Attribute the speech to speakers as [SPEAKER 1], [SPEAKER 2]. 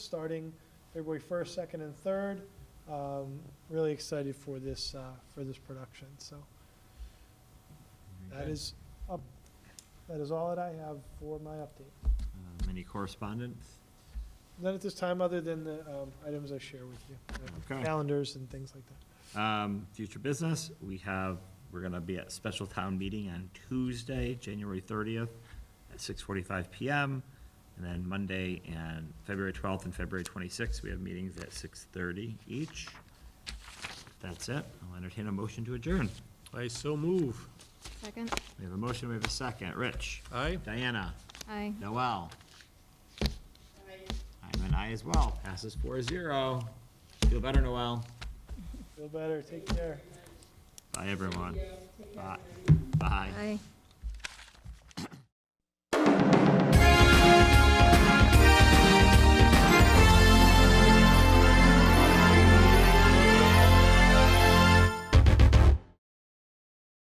[SPEAKER 1] starting February first, second, and third. Um, really excited for this, uh, for this production, so that
[SPEAKER 2] Okay.
[SPEAKER 1] is up, that is all that I have for my update.
[SPEAKER 2] Um, Any correspondence?
[SPEAKER 1] None at this time, other than the, um, items I share with you, the
[SPEAKER 2] Okay.
[SPEAKER 1] calendars and things like that.
[SPEAKER 2] Um, Future business, we have, we're gonna be at special town meeting on Tuesday, January thirtieth, at six forty-five PM. And then Monday and February twelfth and February twenty-sixth, we have meetings at six thirty each. That's it. I'll entertain a motion to adjourn.
[SPEAKER 3] I so move.
[SPEAKER 4] Second?
[SPEAKER 2] We have a motion, we have a second. Rich?
[SPEAKER 3] Aye?
[SPEAKER 2] Diana?
[SPEAKER 4] Aye.
[SPEAKER 2] Noel? I'm an aye as well. Passes four zero. Feel better, Noel?
[SPEAKER 1] Feel better, take care.
[SPEAKER 2] Bye, everyone. Bye. Bye.
[SPEAKER 4] Aye.